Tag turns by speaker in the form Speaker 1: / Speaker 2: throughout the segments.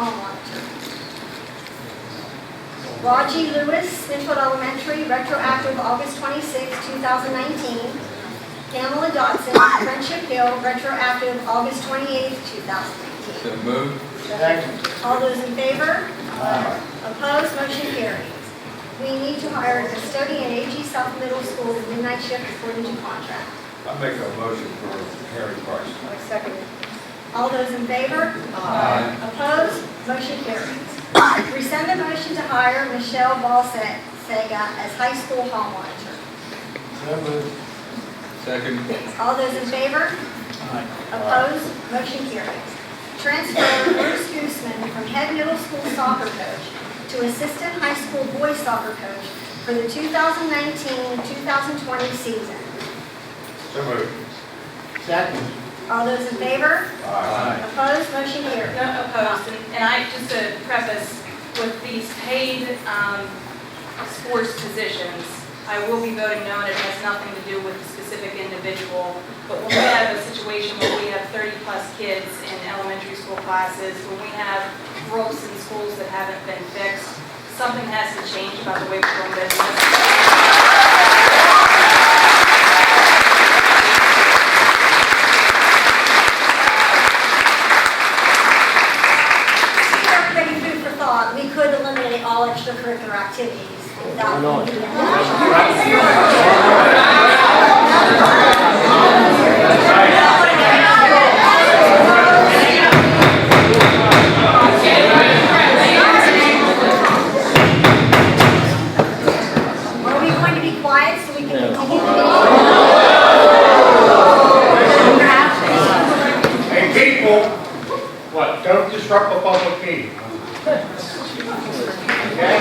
Speaker 1: Beaumont. Raji Lewis, Smithfield Elementary, retroactive August 26, 2019. Pamela Dotson, Friendship Hill, retroactive August 28, 2019.
Speaker 2: So moved.
Speaker 1: All those in favor? Opposed, motion carries. We need to hire a custodian at AG South Middle School midnight shift according to contract.
Speaker 3: I make a motion for Harry Price.
Speaker 1: I second All those in favor?
Speaker 2: Aye.
Speaker 1: Opposed? Motion carries. Rescind the motion to hire Michelle Balsack Sega as high school hall monitor.
Speaker 2: Second.
Speaker 1: All those in favor? Opposed? Motion carries. Transfer Bruce Gooseman from head middle school soccer coach to assistant high school boys soccer coach for the 2019-2020 season.
Speaker 3: So moved.
Speaker 4: Second.
Speaker 1: All those in favor?
Speaker 3: Aye.
Speaker 1: Opposed? Motion carries.
Speaker 5: No opposed, and and I, just to preface, with these paid um, sports positions, I will be voting no, and it has nothing to do with the specific individual, but when we have a situation where we have 30-plus kids in elementary school classes, when we have ropes in schools that haven't been fixed, something has to change about the way we're doing business.
Speaker 1: Everybody food for thought, we could eliminate all extracurricular activities. That would be- Are we going to be quiet so we can continue?
Speaker 3: Hey, people, what, don't disrupt the public meeting. Okay?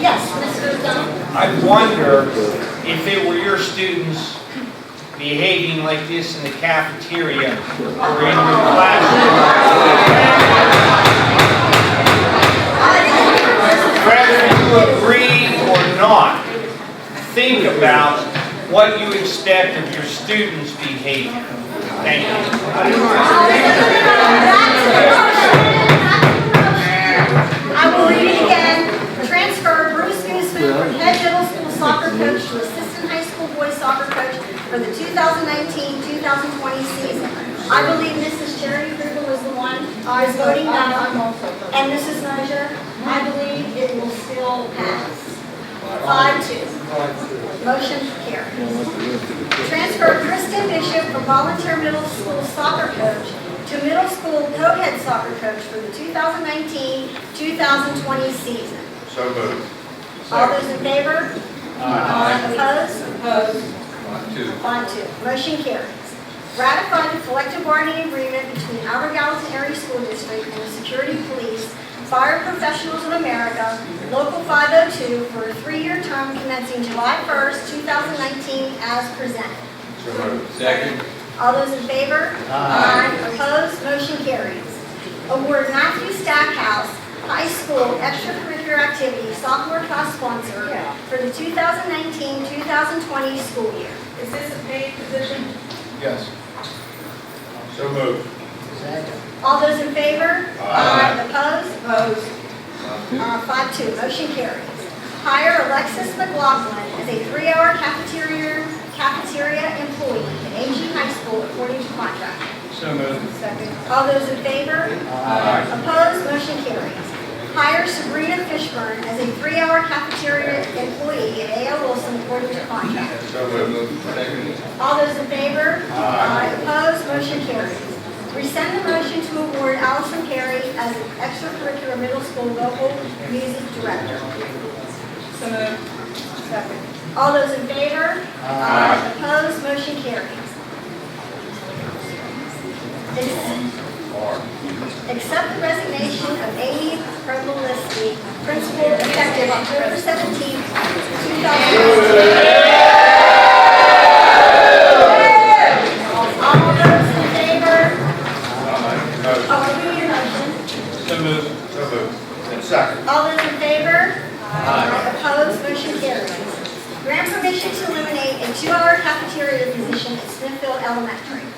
Speaker 1: Yes, Mr. O'Donnell?
Speaker 6: I wonder if it were your students behaving like this in the cafeteria or in your classroom. Whether you agree or not, think about what you expect of your students' behavior. Thank you.
Speaker 1: I will read it again. Transfer Bruce Newsman from head middle school soccer coach to assistant high school boys soccer coach for the 2019-2020 season. I believe Mrs. Jerry Krueger was the one who was voting no. And Mrs. Mosier, I believe it will still pass. Five two. Motion carries. Transfer Kristen Bishop from volunteer middle school soccer coach to middle school co-head soccer coach for the 2019-2020 season.
Speaker 3: So moved.
Speaker 1: All those in favor? Aye. Opposed?
Speaker 5: Opposed,
Speaker 2: One, two.
Speaker 1: On to, motion carries. Ratify the collective bargaining agreement between Albert Gallatin Area School District and the Security Police, Fire Professionals of America, Local 502, for a three-year term commencing July 1st, 2019, as presented.
Speaker 3: So moved.
Speaker 2: Second.
Speaker 1: All those in favor? Aye. Opposed, motion carries. Award Matthew Stackhouse High School Extracurricular Activity Sophomore Class Sponsor for the 2019-2020 school year.
Speaker 5: is this a paid position?
Speaker 3: Yes. So moved.
Speaker 1: All those in favor?
Speaker 3: Aye.
Speaker 1: Opposed?
Speaker 5: Opposed,
Speaker 1: Uh, Five two, motion carries. Hire Alexis McLaughlin as a three-hour cafeteria, cafeteria employee at AG High School according to contract.
Speaker 6: So moved.
Speaker 1: All those in favor? Aye. Opposed? Motion carries. Hire Sabrina Fishburne as a three-hour cafeteria employee at A.L. Wilson according to contract.
Speaker 3: So moved.
Speaker 2: Second.
Speaker 1: All those in favor? Aye. Opposed, motion carries. Rescind the motion to award Allison Perry as an extracurricular middle school vocal music director.
Speaker 5: so moved.
Speaker 1: All those in favor? Aye. Opposed, motion carries. Ex- Accept the resignation of Amy Prebolinsky, principal effective October 17, 2019. All those in favor?
Speaker 3: Aye.
Speaker 1: Oh, do your motion.
Speaker 6: So moved.
Speaker 3: So moved. Second.
Speaker 1: All those in favor? Aye. Opposed, motion carries. Grant permission to eliminate a two-hour cafeteria position at Smithfield Elementary.